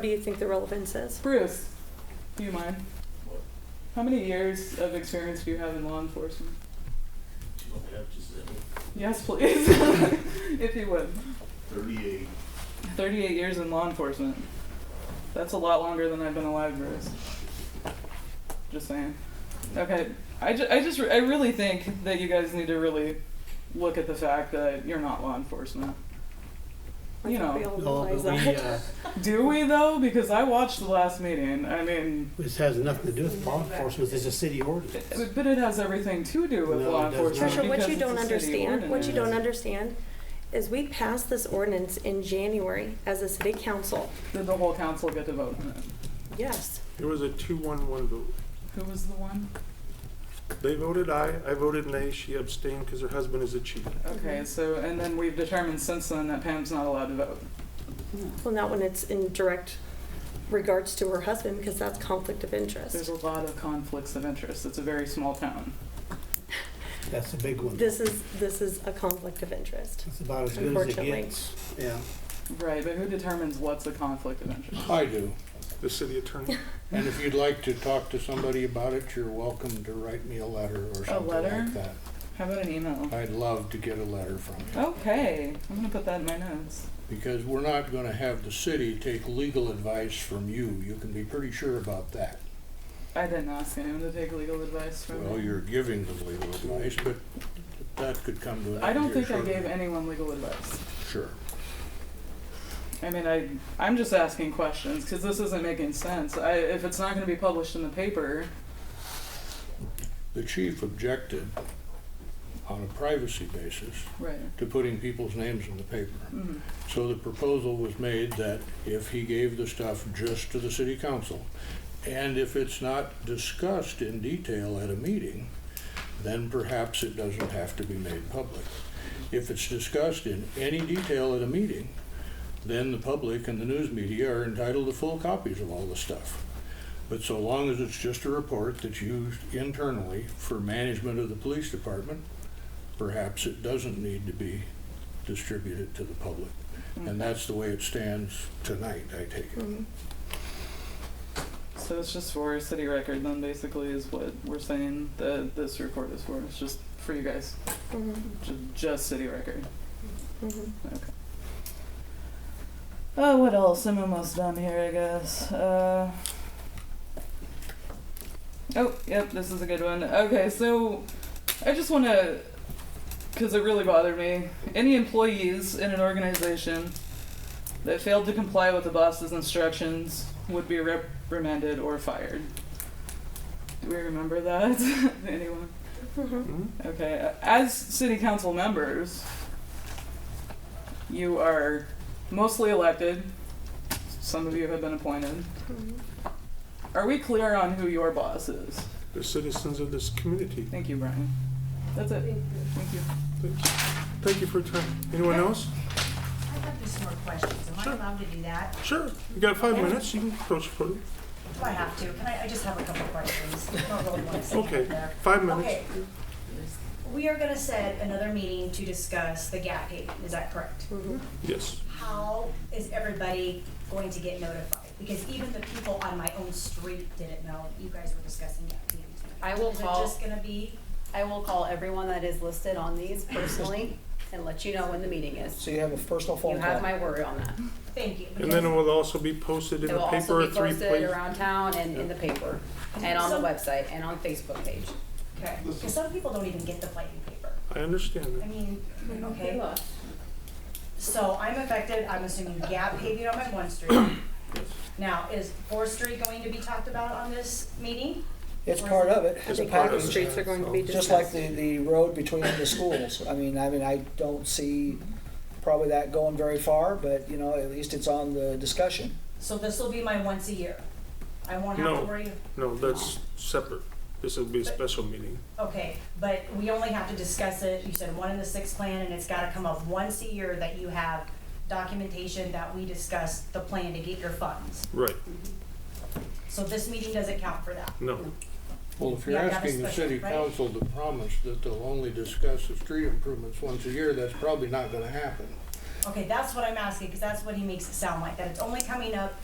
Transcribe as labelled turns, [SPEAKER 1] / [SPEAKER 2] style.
[SPEAKER 1] What do you think the relevance is?
[SPEAKER 2] Bruce, do you mind? How many years of experience do you have in law enforcement?
[SPEAKER 3] Do you want me to have just uh,
[SPEAKER 2] Yes, please. if you would.
[SPEAKER 3] 38
[SPEAKER 2] 38 years in law enforcement. That's a lot longer than I've been alive, Bruce. Just saying. Okay, I, ju- I just re- I really think that you guys need to really look at the fact that you're not law enforcement.
[SPEAKER 1] I
[SPEAKER 2] You
[SPEAKER 1] think
[SPEAKER 2] know.
[SPEAKER 1] we all
[SPEAKER 4] No,
[SPEAKER 1] realize
[SPEAKER 4] but we,
[SPEAKER 1] that.
[SPEAKER 4] uh,
[SPEAKER 2] Do we though? Because I watched the last meeting. I mean,
[SPEAKER 4] this has nothing to do with law enforcement, it's a city ordinance.
[SPEAKER 2] but it has everything to do with
[SPEAKER 4] No,
[SPEAKER 2] law
[SPEAKER 4] it does
[SPEAKER 2] enforcement.
[SPEAKER 4] not.
[SPEAKER 1] Trisha, what
[SPEAKER 2] because
[SPEAKER 1] you
[SPEAKER 2] it's a
[SPEAKER 1] don't
[SPEAKER 2] city
[SPEAKER 1] understand, what you
[SPEAKER 2] ordinance.
[SPEAKER 1] don't understand is we passed this ordinance in January as a city council.
[SPEAKER 2] Did the whole council get to vote on it?
[SPEAKER 1] Yes.
[SPEAKER 5] It was a two-one-one vote.
[SPEAKER 2] Who was the one?
[SPEAKER 5] They voted aye, I voted nay, she abstained because her husband is a chief.
[SPEAKER 1] Mm-hmm.
[SPEAKER 2] Okay, so, and then we've determined since then that Pam's not allowed to vote.
[SPEAKER 1] Well, not when it's in direct regards to her husband, because that's conflict of
[SPEAKER 2] There's
[SPEAKER 1] interest.
[SPEAKER 2] a lot of conflicts of interest. It's a very small town.
[SPEAKER 4] That's a big one.
[SPEAKER 1] This is, this is a conflict of interest.
[SPEAKER 4] It's about as good as it
[SPEAKER 1] Unfortunately.
[SPEAKER 4] gets. Yeah.
[SPEAKER 2] Right, but who determines what's a conflict of interest?
[SPEAKER 6] I do.
[SPEAKER 5] The city attorney,
[SPEAKER 6] And if you'd like to talk to somebody about it, you're welcome to write me a letter or something
[SPEAKER 2] letter?
[SPEAKER 6] like that.
[SPEAKER 2] How about an email?
[SPEAKER 6] I'd love to get a letter from you.
[SPEAKER 2] Okay, I'm gonna put that in my notes.
[SPEAKER 6] Because we're not going to have the city take legal advice from you. You can be pretty sure about that.
[SPEAKER 2] I didn't ask anyone to take legal advice from
[SPEAKER 6] Well,
[SPEAKER 2] me.
[SPEAKER 6] you're giving them legal advice, but that could come to an end.
[SPEAKER 2] I don't
[SPEAKER 6] here
[SPEAKER 2] think I gave
[SPEAKER 6] shortly.
[SPEAKER 2] anyone legal advice.
[SPEAKER 6] Sure.
[SPEAKER 2] I mean, I, I'm just asking questions because this isn't making sense. I, if it's not gonna be published in the paper,
[SPEAKER 6] The chief objected on a privacy basis
[SPEAKER 2] right.
[SPEAKER 6] to putting people's names in the paper.
[SPEAKER 2] Mm-hmm.
[SPEAKER 6] So the proposal was made that if he gave the stuff just to the city council, and if it's not discussed in detail at a meeting, then perhaps it doesn't have to be made public. If it's discussed in any detail at a meeting, then the public and the news media are entitled to full copies of all the stuff. But so long as it's just a report that's used internally for management of the police department, perhaps it doesn't need to be distributed to the public. And that's the way it stands tonight, I take it.
[SPEAKER 1] Mhm.
[SPEAKER 2] So it's just for city record then basically is what we're saying that this report is for. It's just for you guys.
[SPEAKER 1] Mhm,
[SPEAKER 2] Ju- Just city record.
[SPEAKER 1] mhm.
[SPEAKER 2] Oh, what else? I'm almost done here, I guess. Uh, oh, yep, this is a good one. Okay, so I just want to, because it really bothered me. Any employees in an organization that failed to comply with the boss's instructions would be reprimanded or fired. Do we remember that? Anyone?
[SPEAKER 1] Mhm.
[SPEAKER 5] Hmm?
[SPEAKER 2] Okay, as city council members, you are mostly elected. Some of you have been appointed. Are we clear on who your boss is?
[SPEAKER 5] the citizens of this community.
[SPEAKER 2] Thank you, Brian. That's it. Thank you.
[SPEAKER 5] Thank you. Thank you for your time. Anyone else?
[SPEAKER 7] I have just some more questions. Am I
[SPEAKER 5] Sure.
[SPEAKER 7] allowed to do that?
[SPEAKER 5] Sure, you got five minutes, you can approach the podium.
[SPEAKER 7] Do I have to? Can I, I just have a couple questions. I don't really want to say
[SPEAKER 5] Okay,
[SPEAKER 7] it there.
[SPEAKER 5] five minutes.
[SPEAKER 7] Okay. We are gonna set another meeting to discuss the gap pay. Is that correct?
[SPEAKER 8] Hmm.
[SPEAKER 5] Yes,
[SPEAKER 7] How is everybody going to get notified? Because even the people on my own street didn't know you guys were discussing gap pay.
[SPEAKER 8] I will
[SPEAKER 7] Is it
[SPEAKER 8] call-
[SPEAKER 7] just gonna be,
[SPEAKER 8] I will call everyone that is listed on these personally and let you know when the meeting is.
[SPEAKER 9] So you have a personal
[SPEAKER 8] You
[SPEAKER 9] phone call?
[SPEAKER 8] have my word on that.
[SPEAKER 7] thank you.
[SPEAKER 5] and then it
[SPEAKER 7] because-
[SPEAKER 5] will also be posted in
[SPEAKER 8] It
[SPEAKER 5] the
[SPEAKER 8] will
[SPEAKER 5] paper
[SPEAKER 8] also
[SPEAKER 5] at
[SPEAKER 8] be
[SPEAKER 5] three
[SPEAKER 8] posted
[SPEAKER 5] places.
[SPEAKER 8] around town and in the paper, and on the
[SPEAKER 7] So-
[SPEAKER 8] website, and on Facebook page.
[SPEAKER 7] Okay, because some people don't even get the plating paper.
[SPEAKER 5] I understand
[SPEAKER 7] I
[SPEAKER 5] that.
[SPEAKER 7] mean,
[SPEAKER 8] Hmm.
[SPEAKER 7] okay. So I'm affected, I'm assuming gap paving on my one street. Now, is Fourth Street going to be talked about on this meeting?
[SPEAKER 9] It's part of it,
[SPEAKER 1] I
[SPEAKER 9] it's a
[SPEAKER 1] think all the
[SPEAKER 9] package,
[SPEAKER 1] streets are going to be
[SPEAKER 9] just like
[SPEAKER 1] discussed.
[SPEAKER 9] the, the road between the schools. I mean, I mean, I don't see probably that going very far, but, you know, at least it's on the discussion.
[SPEAKER 7] So this will be my once a year. I won't have
[SPEAKER 5] No.
[SPEAKER 7] to worry,
[SPEAKER 5] No, that's separate. This will be a special meeting.
[SPEAKER 7] okay, but we only have to discuss it, you said one in the sixth plan, and it's gotta come up once a year that you have documentation that we discussed the plan to get your funds.
[SPEAKER 5] Right,
[SPEAKER 7] So this meeting doesn't count for that.
[SPEAKER 5] no,
[SPEAKER 6] Well, if you're
[SPEAKER 7] Yeah, that was
[SPEAKER 6] asking the
[SPEAKER 7] special,
[SPEAKER 6] city
[SPEAKER 7] right?
[SPEAKER 6] council to promise that they'll only discuss the street improvements once a year, that's probably not gonna happen.
[SPEAKER 7] Okay, that's what I'm asking, because that's what he makes it sound like, that it's only coming up